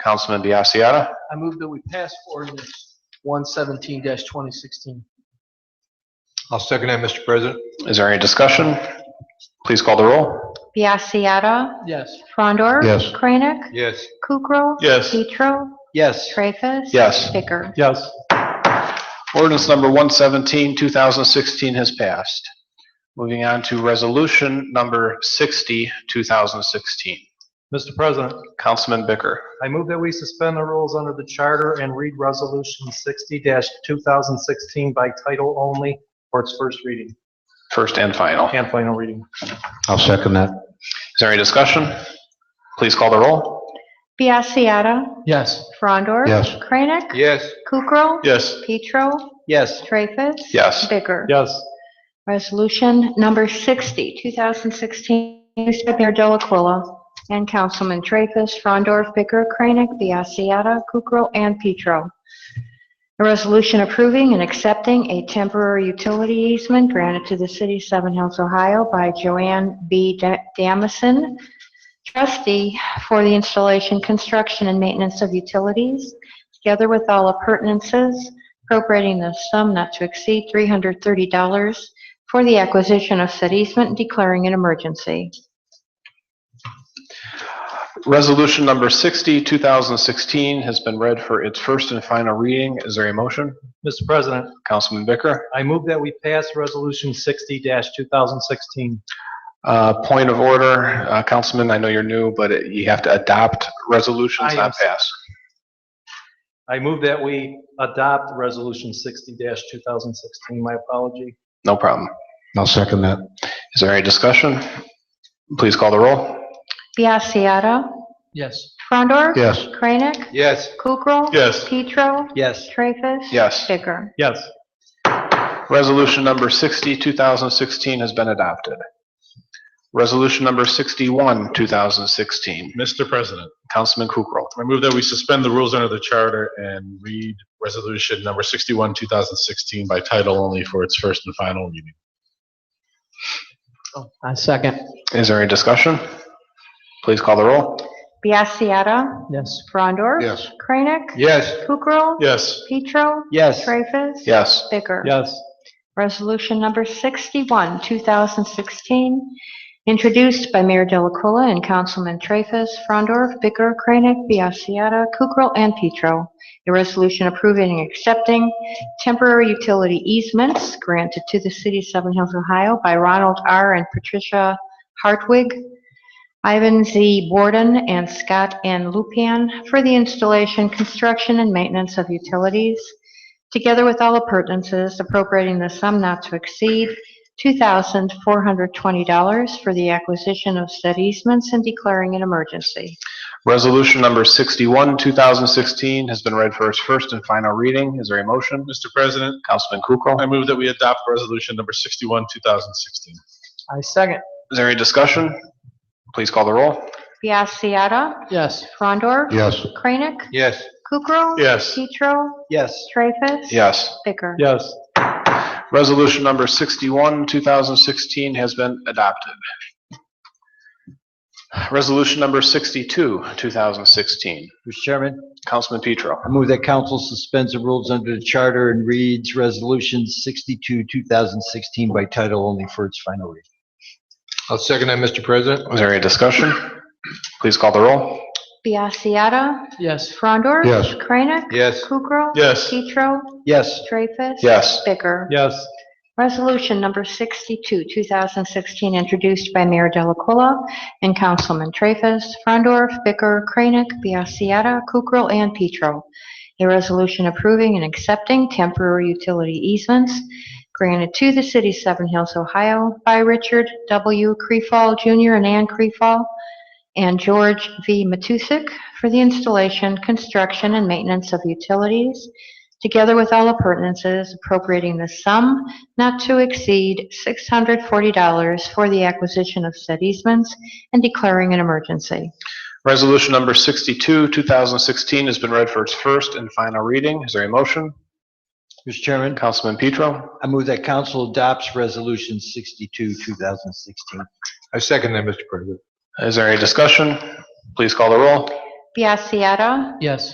Councilman Biassiata. I move that we pass ordinance one seventeen twenty sixteen. I'll second that, Mr. President. Is there any discussion? Please call the roll. Biassiata. Yes. Frondor. Yes. Kranek. Yes. Kukrow. Yes. Petro. Yes. Traffus. Yes. Bicker. Yes. Ordinance number 117, 2016 has passed. Moving on to resolution number 60, 2016. Mr. President, Councilman Bicker. I move that we suspend the rules under the charter and read Resolution 60-2016 by title only for its first reading First and final. Is and final reading. I'll second that. there any discussion? Please call the roll. Biassiata. Yes. Frondor. Yes. Kranek. Yes. Kukrow. Yes. Petro. Yes. Traffus. Yes. Bicker. Yes. Resolution number 60, 2016, introduced by Mayor Delacuilla and Councilman Traffus, Frondor, Bicker, Kranek, Biassiata, Kukrow, and Petro. A resolution approving and accepting a temporary utility easement granted to the city of Seven Hills, Ohio by Joanne B. Da- Damison, trustee for the installation, construction, and maintenance of utilities, together with all appurtenances, appropriating the sum not to exceed $330 for the acquisition of said easement and declaring an emergency. Resolution number 60, 2016 has been read for its first and final reading. Is there a motion? Mr. President, Councilman Bicker. I move that we pass Resolution 60-2016. Uh, Point of order, uh, Councilman, I know you're new, but it- you have to adopt resolutions, I not am- pass. I move that we adopt Resolution 60-2016. My apology. No problem. I'll second that. Is there any discussion? Please call the roll. Biassiata. Yes. Frondor. Yes. Kranek. Yes. Kukrow. Yes. Petro. Yes. Traffus. Yes. Bicker. Yes. Resolution number 60, 2016 has been adopted. Resolution number 61, 2016. Mr. President, Councilman Kukrow. I move that we suspend the rules under the charter and read resolution number 61, 2016 by title only for its first and final reading. Oh, I second. Is there any discussion? Please call the roll. Biassiata. Yes. Frondor. Yes. Kranek. Yes. Kukrow. Yes. Petro. Yes. Traffus. Yes. Bicker. Yes. Resolution number 61, 2016, introduced by Mayor Delacuilla and Councilman Traffus, Frondor, Bicker, Kranek, Biassiata, Kukrow, and Petro. A resolution approving and accepting temporary utility easements granted to the city of Seven Hills, Ohio by Ronald R. and Patricia Hartwig, Ivan Z. Borden, and Scott N. Lupian for the installation, construction, and maintenance of utilities together with all appurtenances appropriating the sum not to exceed $2,420 for the acquisition of said easements and declaring an emergency. Resolution number 61, 2016 has been read for its first and final reading. Is there a motion? Mr. President, Councilman Kukrow. I move that we adopt resolution number 61, 2016. I second. Is there any discussion? Please call the roll. Biassiata. Yes. Frondor. Yes. Kranek. Yes. Kukrow. Yes. Petro. Yes. Traffus. Yes. Bicker. Yes. Resolution number 61, 2016 has been adopted. Resolution number 62, 2016. Mr. Chairman, Councilman Petro. I move that council suspends the rules under the charter and reads Resolution 62, 2016 by title only for its final reading. I'll second that, Mr. President. Is there any discussion? Please call the roll. Biassiata. Yes. Frondor. Yes. Kranek. Yes. Kukrow. Yes. Petro. Yes, Traffus. Yes. Bicker. Yes. Resolution number 62, 2016, introduced by Mayor Delacuilla and Councilman Traffus, Frondorf, Bicker, Kranek, Biassiata, Kukrow, and Petro. A resolution approving and accepting temporary utility easements granted to the city of Seven Hills, Ohio by Richard W. Crefall Jr. and Ann Crefall and George V. Matusik for the installation, construction, and maintenance of utilities, together with all appurtenances appropriating the sum not to exceed $640 for the acquisition of said easements and declaring an emergency. Resolution number 62, 2016 has been read for its first and final reading. Is there a motion? Mr. Chairman, Councilman Petro. I move that council adopts Resolution 62, 2016. I second that, Mr. President. Is there any discussion? Please call the roll. Biassiata. Yes.